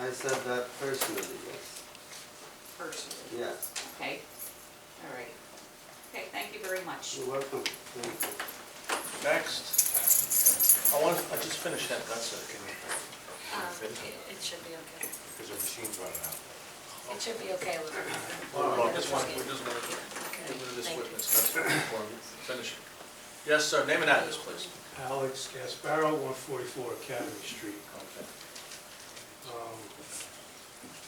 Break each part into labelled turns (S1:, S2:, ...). S1: I said that personally, yes,
S2: personally,
S1: yes.
S2: okay? All right. Okay, thank you very much.
S1: You're welcome, thank you.
S3: Next. I want, I just finished that, that's it. Can
S4: Um,
S3: you-
S4: It it should be okay.
S3: Because the machine's running out.
S4: It should be okay, Elizabeth.
S3: Well, I just want, we
S4: Okay,
S3: just want to get rid of this
S4: thank you.
S3: witness, that's what we want, finish. Yes, sir, name and address, please.
S5: Alex Gasparo, 144 Academy Street. Um,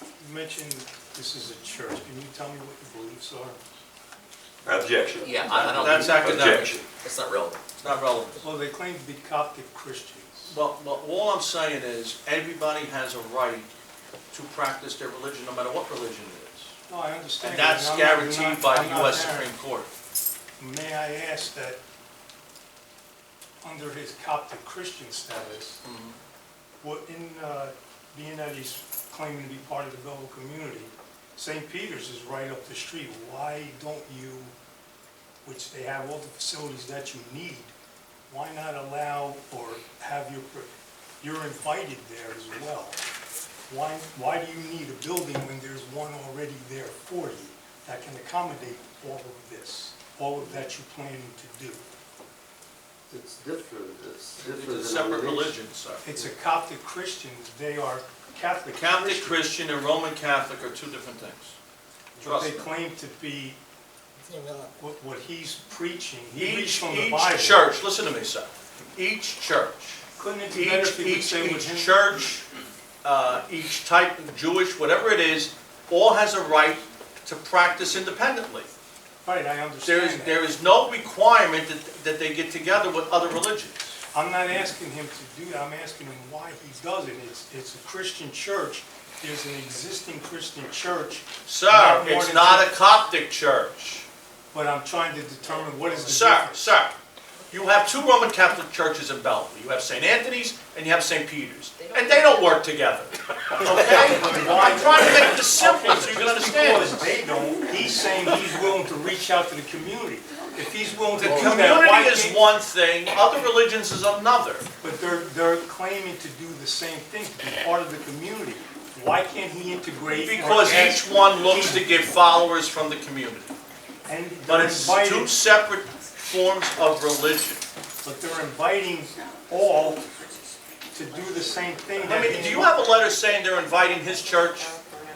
S5: You mentioned this is a church. Can you tell me what your beliefs are?
S6: Objection.
S7: Yeah, I I don't.
S3: That's academic,
S6: Objection.
S7: It's not relevant.
S3: it's not relevant.
S5: Well, they claim to be Coptic Christians.
S3: But, but all I'm saying is, everybody has a right to practice their religion, no matter what religion it is.
S5: No, I understand.
S3: And that's
S5: I'm not- you're not-
S3: guaranteed by
S5: I'm
S3: the
S5: not
S3: US
S5: married.
S3: Supreme Court.
S5: May I ask that, under his Coptic Christian status,
S3: Mhm.
S5: what in, uh, being that he's claiming to be part of the Belleville community, St. Peter's is right up the street. Why don't you, which they have all the facilities that you need, why not allow or have your, per- you're invited there as well? Why, why do you need a building when there's one already there for you that can accommodate all of this, all of that you're planning to do?
S1: It's different, it's
S3: It's
S1: different.
S3: a separate
S1: denomination.
S3: religion, sir.
S5: It's a Coptic Christian, they are Catholic
S3: Catholic
S5: Christians.
S3: Christian and Roman Catholic are two different things.
S5: But
S3: Trust
S5: they
S3: me.
S5: claim to be
S4: It's irrelevant.
S5: what, what he's preaching. He reads
S3: Each,
S5: from the Bible.
S3: each church, listen to me, sir, each church,
S5: Couldn't it be better if
S3: each,
S5: he would
S3: each,
S5: say what
S3: each
S5: him?
S3: church, uh, each type, of Jewish, whatever it is, all has a right to practice independently.
S5: Right, I
S3: There is,
S5: understand
S3: there
S5: that.
S3: is no requirement that, that they get together with other religions.
S5: I'm not asking him to do that. I'm asking him why he does it. It's, it's a Christian church. There's an existing Christian church,
S3: Sir,
S5: Not more
S3: it's
S5: than
S3: not a
S5: two.
S3: Coptic church.
S5: but I'm trying to determine what is the
S3: Sir,
S5: difference.
S3: sir, you have two Roman Catholic churches in Belleville. You have St. Anthony's and you have St. Peter's. And they don't work together, okay? I'm trying to make this simple so you can understand
S5: Because
S3: it.
S5: they don't, he's saying he's willing to reach out to the community. If he's willing to
S3: The
S5: do that, why
S3: community is
S5: can't?
S3: one thing, other religions is another.
S5: But they're, they're claiming to do the same thing, to be part of the community. Why can't he integrate? or
S3: Because
S5: add-
S3: each one looks to get followers from the community.
S5: And
S3: But
S5: they're
S3: it's two
S5: inviting,
S3: separate forms of religion.
S5: but they're inviting all to do the same thing.
S3: I
S5: that
S3: mean,
S5: he-
S3: do you have a letter saying they're inviting his church?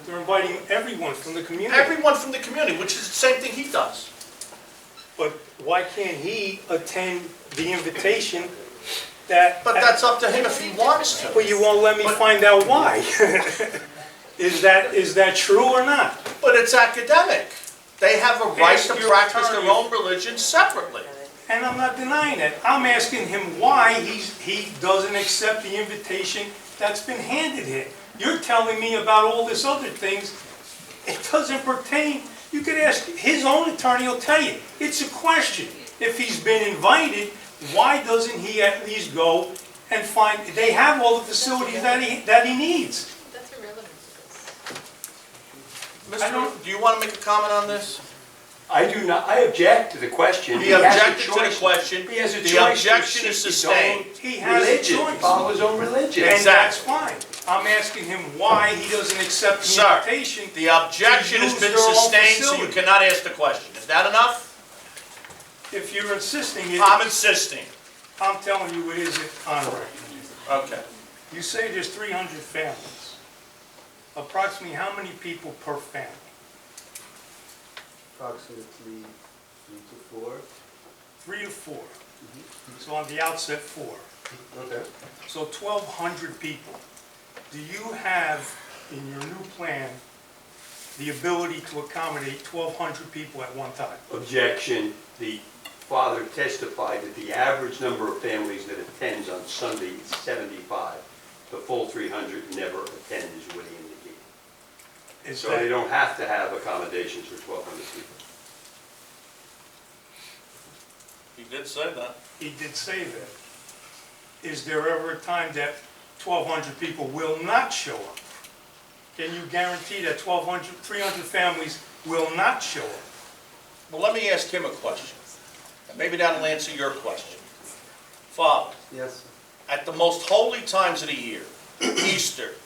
S5: They're inviting everyone from the community,
S3: Everyone from the community, which is the same thing he does.
S5: but why can't he attend the invitation that?
S3: But that's up to him if he wants to.
S5: Well, you won't let me find out why. Is that, is that true or not?
S3: But it's academic. They have a right
S5: Ask
S3: to
S5: your
S3: practice their
S5: attorney.
S3: own religion separately.
S5: And I'm not denying it. I'm asking him why he's, he doesn't accept the invitation that's been handed him. You're telling me about all this other things. It doesn't pertain. You could ask, his own attorney will tell you. It's a question. If he's been invited, why doesn't he at least go and find, they have all the facilities that he, that he needs.
S4: That's irrelevant to this.
S5: I
S3: Mr.,
S5: don't-
S3: do you want to make a comment on this?
S6: I do not, I object to the question.
S3: He
S6: has a
S3: objected to the
S6: choice-
S3: question.
S6: He has a
S3: The
S6: choice. to
S3: objection
S6: seek
S3: is
S6: his
S3: sustained.
S6: own
S5: He has a
S6: religion,
S5: choice.
S6: Follow his own religion.
S5: And that's
S3: Exactly.
S5: fine. I'm asking him why he doesn't accept the
S3: Sir,
S5: invitation.
S3: The objection has
S5: To
S3: been
S5: use their own
S3: sustained, so you
S5: facility.
S3: cannot ask the question. Is that enough?
S5: If you're insisting it.
S3: I'm insisting.
S5: I'm telling you, it isn't on record.
S3: Okay.
S5: You say there's 300 families. Approximately how many people per family?
S1: Approximately three to four.
S5: Three to four. So on the outset, four.
S1: Okay.
S5: So 1,200 people. Do you have in your new plan the ability to accommodate 1,200 people at one time?
S6: Objection. The father testified that the average number of families that attends on Sunday is 75. The full 300 never attend is what he indicated.
S5: Is
S6: So they
S5: that,
S6: don't have to have accommodations for 1,200 people.
S3: He did say that.
S5: he did say that. Is there ever a time that 1,200 people will not show up? Can you guarantee that 1,200, 300 families will not show up?
S3: Well, let me ask him a question. And Maybe that'll answer your question. Father,
S1: Yes,
S3: at the most holy times of the year, Easter,